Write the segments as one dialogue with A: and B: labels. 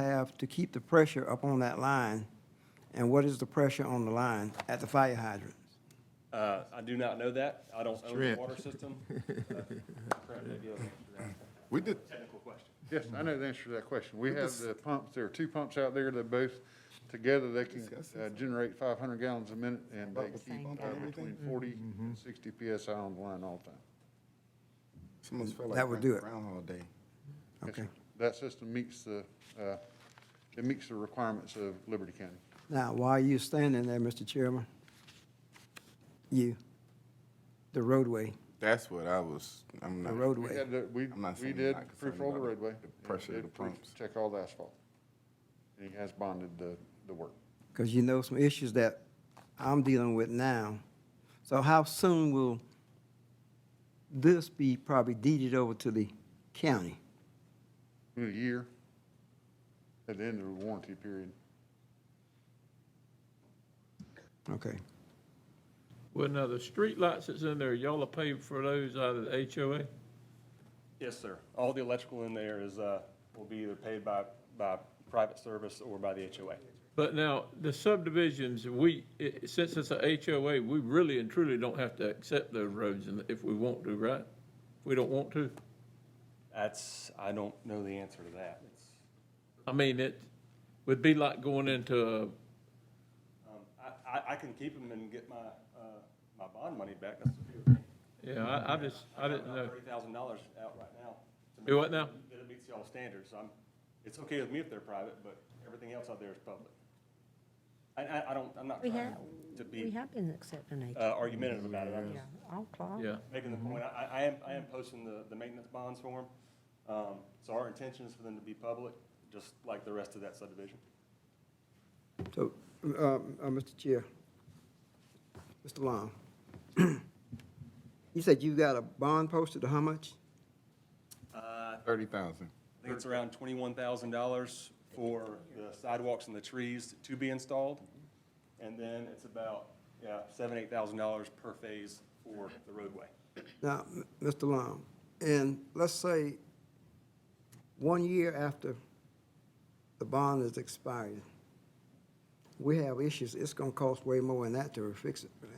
A: enough to keep the pressure up on that line? And what is the pressure on the line at the fire hydrant?
B: Uh, I do not know that. I don't own the
C: Strength.
B: water system.
C: We did,
B: Technical question.
D: Yes, I know the answer to that question. We have the pumps, there are two pumps out there that both, together, they can uh, generate five hundred gallons a minute, and they keep uh, between
C: Mm-hmm.
D: forty and sixty PSI on the line all the time.
A: That would do it.
C: Groundhog Day.
D: Yes,
A: Okay.
D: sir. That system meets the, uh, it meets the requirements of Liberty County.
A: Now, while you standing there, Mr. Chairman, you, the roadway,
C: That's what I was, I'm
A: the
C: not.
D: We
A: roadway.
D: had, the- we,
C: I'm not
D: we
C: saying you're
D: did
C: not concerned
D: proof roll the
C: about it,
D: roadway.
C: the
D: and
C: pressure of
D: did
C: the
D: proof
C: pumps.
D: Check all the asphalt. And he has bonded the, the work.
A: because you know some issues that I'm dealing with now. So how soon will this be probably deeded over to the county?
D: In a year, at the end of the warranty period.
A: Okay.
E: Well, now, the street lights that's in there, y'all are paying for those out of the HOA?
B: Yes, sir. All the electrical in there is, uh, will be either paid by, by private service or by the HOA.
E: But now, the subdivisions, we, i- since it's a HOA, we really and truly don't have to accept those roads and if we want to, right? If we don't want to.
B: That's, I don't know the answer to that. It's-
E: I mean, it would be like going into,
B: um, I, I, I can keep them and get my, uh, my bond money back. That's the deal.
E: a- yeah, I, I just, I didn't know.
B: Thirty thousand dollars out right now. to
E: Do
B: make
E: what now?
B: sure That it meets y'all standards. I'm, it's okay with me if they're private, but everything else out there is public. I, I, I don't, I'm not
F: We
B: trying
F: have,
B: to
F: we
B: be
F: have been accepting
B: uh,
F: it.
B: argumentative about it. I'm
F: Yeah, Mm-hmm.
B: just
F: all clock.
E: Yeah,
B: making the point. I, I am, I am posting the, the maintenance bonds for them. Um, so our intention is for them to be public, just like the rest of that subdivision.
A: So, uh, uh, Mr. Chair, Mr. Long, you said you got a bond posted, how much?
B: Uh,
C: Thirty thousand.
B: I think it's around twenty-one thousand dollars for the sidewalks and the trees to be installed. And then it's about, yeah, seven, eight thousand dollars per phase for the roadway.
A: Now, m- Mr. Long, and let's say one year after the bond is expired, we have issues, it's gonna cost way more than that to fix it, right?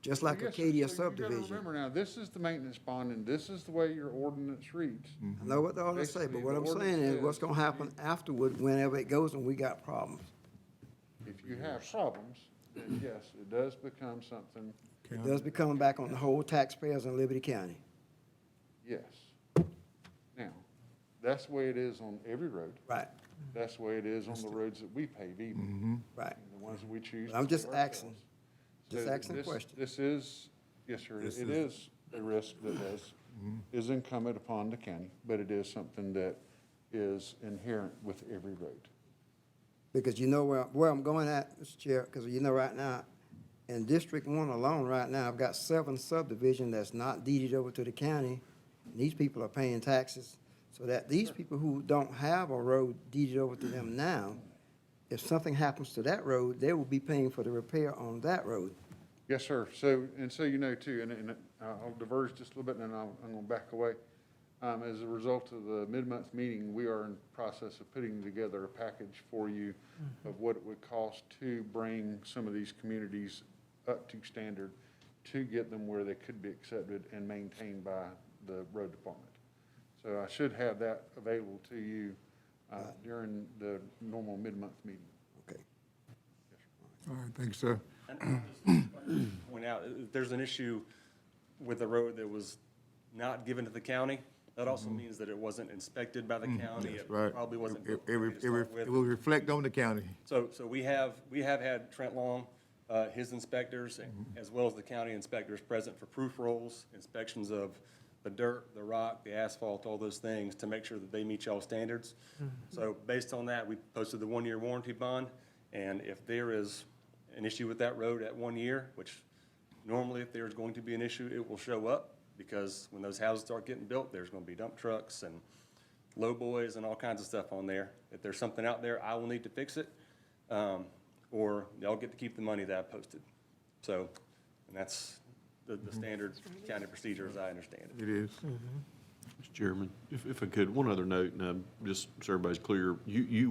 A: Just like
D: Yes, sir.
A: Acadia
D: So you gotta
A: subdivision.
D: Remember now, this is the maintenance bond, and this is the way your ordinance reads.
A: I know what all they say, but
D: Basically,
A: what
D: the
A: I'm saying
D: ordinance
A: is what's
D: says
A: gonna happen afterward, whenever it goes and we got problems.
D: If you have problems, then yes, it does become something,
A: It does be coming back on the whole taxpayers in Liberty County.
D: yes. Now, that's the way it is on every road.
A: Right,
D: That's the way it is on the roads that we pave even,
A: right.
D: and the ones that we choose.
A: Mm-hmm. I'm
D: to
A: just
D: do
A: asking.
D: ourselves.
A: Just
D: So
A: asking a
D: this-
A: question.
D: This is, yes, sir,
C: This
D: it is a risk that is,
A: Mm-hmm.
D: is incumbent upon the county, but it is something that is inherent with every road.
A: Because you know where, where I'm going at, Mr. Chair, because you know right now, in District One alone right now, I've got seven subdivision that's not deeded over to the county. And These people are paying taxes, so that these people who don't have a road deeded over to them now, if something happens to that road, they will be paying for the repair on that road.
D: Yes, sir. So, and so you know too, and, and uh, I'll diverge just a little bit and then I'll, I'm gonna back away. Um, as a result of the mid-month meeting, we are in process of putting together a package for you of what it would cost to bring some of these communities up to standard to get them where they could be accepted and maintained by the road department. So I should have that available to you, uh, during the normal mid-month meeting.
A: Okay.
G: All right, thanks, sir.
B: And just Point out, if there's an issue with a road that was not given to the county, that also means that it wasn't inspected by the county. It
G: Mm-hmm. Mm, Right.
B: Probably wasn't.
G: It,
B: built
G: it,
B: properly to
G: it
B: start
G: ref-
B: with.
G: it will reflect on the county.
B: So, so we have, we have had Trent Long, uh, his inspectors, as well as the county inspectors present for proof rolls, inspections of the dirt, the rock, the asphalt, all those things, to make sure that they meet y'all standards. So based on that, we posted the one-year warranty bond, and if there is an issue with that road at one year, which normally if there's going to be an issue, it will show up, because when those houses start getting built, there's gonna be dump trucks and low boys and all kinds of stuff on there. If there's something out there, I will need to fix it, um, or y'all get to keep the money that I posted. So, and that's the, the standard county procedure as I understand it.
G: It is.
H: Mr. Chairman, if, if I could, one other note, and um, just so everybody's clear, you, you